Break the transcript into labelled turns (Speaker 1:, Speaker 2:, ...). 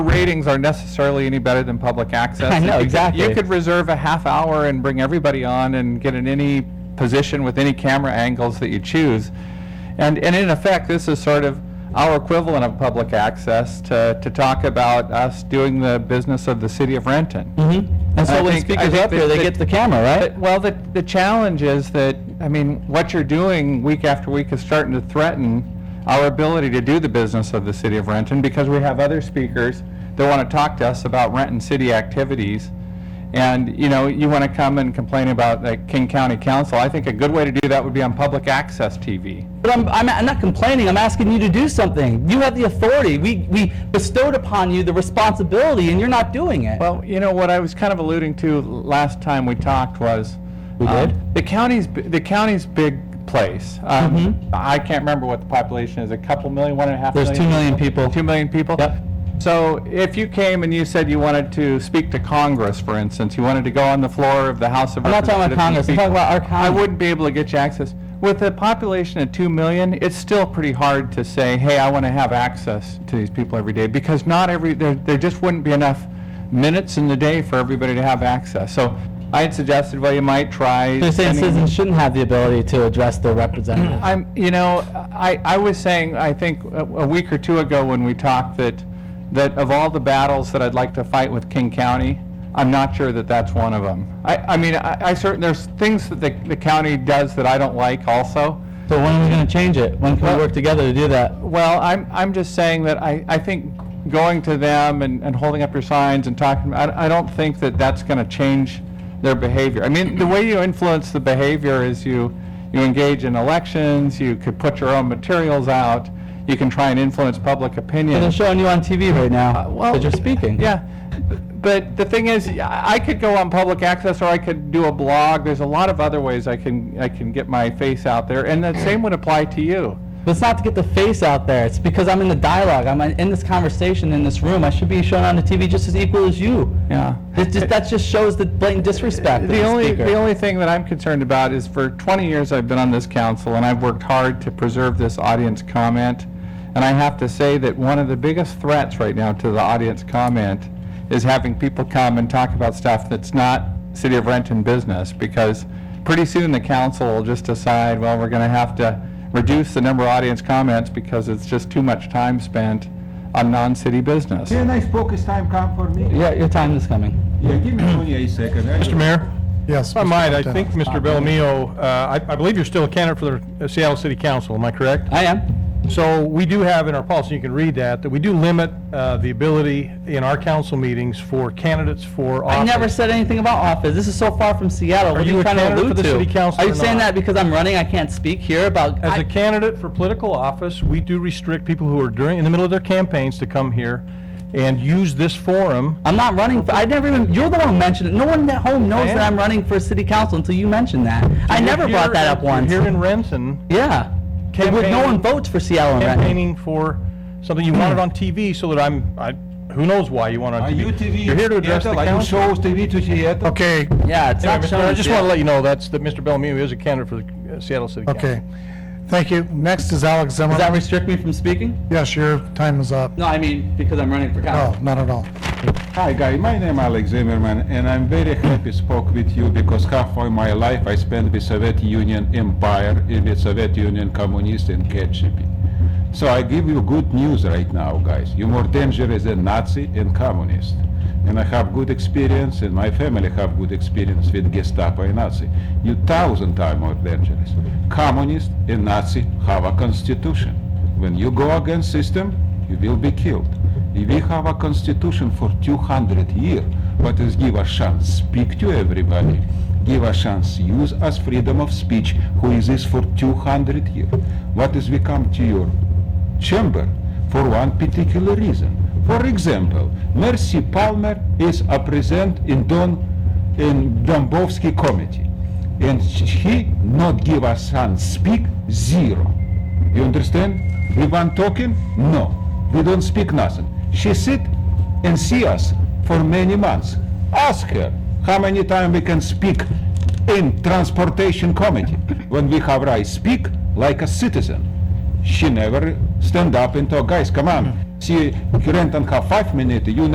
Speaker 1: ratings are necessarily any better than public access.
Speaker 2: I know,
Speaker 1: You could-
Speaker 2: exactly.
Speaker 1: You could reserve a half hour and bring everybody on and get in any position with any camera angles that you choose. And, and in effect, this is sort of our equivalent of public access to, to talk about us doing the business of the city of Renton.
Speaker 2: Mm-hmm. And
Speaker 1: I
Speaker 2: so when
Speaker 1: think- I
Speaker 2: speakers
Speaker 1: think
Speaker 2: are up here,
Speaker 1: that-
Speaker 2: they
Speaker 1: that-
Speaker 2: get the camera, right?
Speaker 1: But- Well, the, the challenge is that, I mean, what you're doing week after week is starting to threaten our ability to do the business of the city of Renton because we have other speakers that want to talk to us about Renton city activities. And, you know, you want to come and complain about the King County Council. I think a good way to do that would be on public access TV.
Speaker 2: But I'm, I'm, I'm not complaining. I'm asking you to do something. You have the authority. We, we bestowed upon you the responsibility, and you're not doing it.
Speaker 1: Well, you know, what I was kind of alluding to last time we talked was.
Speaker 2: We
Speaker 1: um,
Speaker 2: did?
Speaker 1: The county's, b- the county's big place. Um, I can't remember what the population is, a couple million, one and a half
Speaker 2: Mm-hmm. There's
Speaker 1: million?
Speaker 2: two million people.
Speaker 1: Two million people?
Speaker 2: Yep.
Speaker 1: So if you came and you said you wanted to speak to Congress, for instance, you wanted to go on the floor of the House of
Speaker 2: I'm not talking about
Speaker 1: Representatives. and
Speaker 2: Congress. I'm
Speaker 1: speak-
Speaker 2: talking about our county.
Speaker 1: I wouldn't be able to get you access. With a population of 2 million, it's still pretty hard to say, hey, I want to have access to these people every day, because not every, there, there just wouldn't be enough minutes in the day for everybody to have access. So I had suggested, well, you might try.
Speaker 2: They're saying
Speaker 1: sending-
Speaker 2: citizens shouldn't have the ability to address their representative.
Speaker 1: I'm, you know, I, I was saying, I think, a a week or two ago when we talked, that, that of all the battles that I'd like to fight with King County, I'm not sure that that's one of them. I, I mean, I, I certain, there's things that the, the county does that I don't like also.
Speaker 2: So when are we going to change it? When can
Speaker 1: Well-
Speaker 2: we work together to do that?
Speaker 1: Well, I'm, I'm just saying that I, I think going to them and, and holding up your signs and talking, I, I don't think that that's going to change their behavior. I mean, the way you influence the behavior is you, you engage in elections, you could put your own materials out, you can try and influence public opinion.
Speaker 2: They're showing you on TV right now
Speaker 1: well,
Speaker 2: that you're speaking.
Speaker 1: Yeah, but the thing is, I I could go on public access, or I could do a blog. There's a lot of other ways I can, I can get my face out there, and the same would apply to you.
Speaker 2: But it's not to get the face out there. It's because I'm in the dialogue. I'm in this conversation in this room. I should be shown on the TV just as equal as you.
Speaker 1: Yeah.
Speaker 2: It just, that just shows the blatant disrespect. of
Speaker 1: The only,
Speaker 2: speaker.
Speaker 1: the only thing that I'm concerned about is for 20 years I've been on this council, and I've worked hard to preserve this audience comment. And I have to say that one of the biggest threats right now to the audience comment is having people come and talk about stuff that's not City of Renton business, because pretty soon the council will just decide, well, we're going to have to reduce the number of audience comments because it's just too much time spent on non-city business.
Speaker 3: Can I focus time come for me?
Speaker 2: Yeah, your time is coming.
Speaker 3: Yeah, give me only a second.
Speaker 4: Mr. Mayor?
Speaker 5: Yes.
Speaker 4: If I
Speaker 5: Mr.
Speaker 4: might, I
Speaker 5: Montano.
Speaker 4: think Mr. Bellomio, uh, I I believe you're still a candidate for the uh, Seattle City Council, am I correct?
Speaker 2: I am.
Speaker 4: So we do have in our policy, you can read that, that we do limit uh, the ability in our council meetings for candidates for office.
Speaker 2: I never said anything about office. This is so far from Seattle. What are
Speaker 4: you
Speaker 2: you
Speaker 4: a
Speaker 2: trying to
Speaker 4: candidate
Speaker 2: allude
Speaker 4: for the
Speaker 2: to?
Speaker 4: city council
Speaker 2: Are you
Speaker 4: or
Speaker 2: saying
Speaker 4: not?
Speaker 2: that because I'm running, I can't speak here about?
Speaker 4: As
Speaker 2: I-
Speaker 4: a candidate for political office, we do restrict people who are during, in the middle of their campaigns to come here and use this forum.
Speaker 2: I'm not running. For, I never even. You're the one who mentioned it. No one at home knows
Speaker 4: I
Speaker 2: that
Speaker 4: am.
Speaker 2: I'm running for city council until you mentioned that. I
Speaker 4: You're
Speaker 2: never
Speaker 4: here
Speaker 2: brought that
Speaker 4: in-
Speaker 2: up
Speaker 4: you're
Speaker 2: once.
Speaker 4: Here in Renton,
Speaker 2: Yeah. But with- No
Speaker 4: Campaigning-
Speaker 2: one votes for Seattle and Renton.
Speaker 4: campaigning for something you wanted on TV so that I'm, I, who knows why you want it on
Speaker 3: Are
Speaker 4: TV?
Speaker 3: you TV?
Speaker 4: You're here to address the
Speaker 3: Seattle? Are you
Speaker 4: council.
Speaker 3: shows TV to Seattle?
Speaker 5: Okay,
Speaker 2: Yeah, it's
Speaker 4: Anyway,
Speaker 2: not
Speaker 4: Mr. Mayor,
Speaker 2: showing.
Speaker 4: I just
Speaker 2: shit.
Speaker 4: want to let you know that's, that Mr. Bellamy is a candidate for the uh, Seattle City Council.
Speaker 5: okay. Thank you. Next is
Speaker 2: Does
Speaker 5: Alex
Speaker 2: that
Speaker 5: Zimmerman.
Speaker 2: restrict me from speaking?
Speaker 5: Yes, your time is up.
Speaker 2: No, I mean because I'm running for
Speaker 5: No,
Speaker 2: council.
Speaker 5: not at all.
Speaker 3: Hi, guy. My name Alex Zimmerman, and I'm very happy spoke with you because half of my life I spent with Soviet Union Empire in the Soviet Union Communist and KGB. So I give you good news right now, guys. You're more dangerous than Nazi and communist. And I have good experience, and my family have good experience with Gestapo and Nazi. You thousand times more dangerous. Communist and Nazi have a constitution. When you go against system, you will be killed. We have a constitution for 200 years, but it's give a chance, speak to everybody, give a chance, use us freedom of speech, who is this for 200 years. What is we come to your chamber for one particular reason? For example, Mercy Palmer is a present in Don, in Dombovsky committee, and she not give us chance, speak zero. You understand? We want talking? No. We don't speak nothing. She sit and see us for many months. Ask her how many time we can speak in transportation committee when we have right speak like a citizen. She never stand up and talk, guys, come on. See, Kurentan have five minutes, you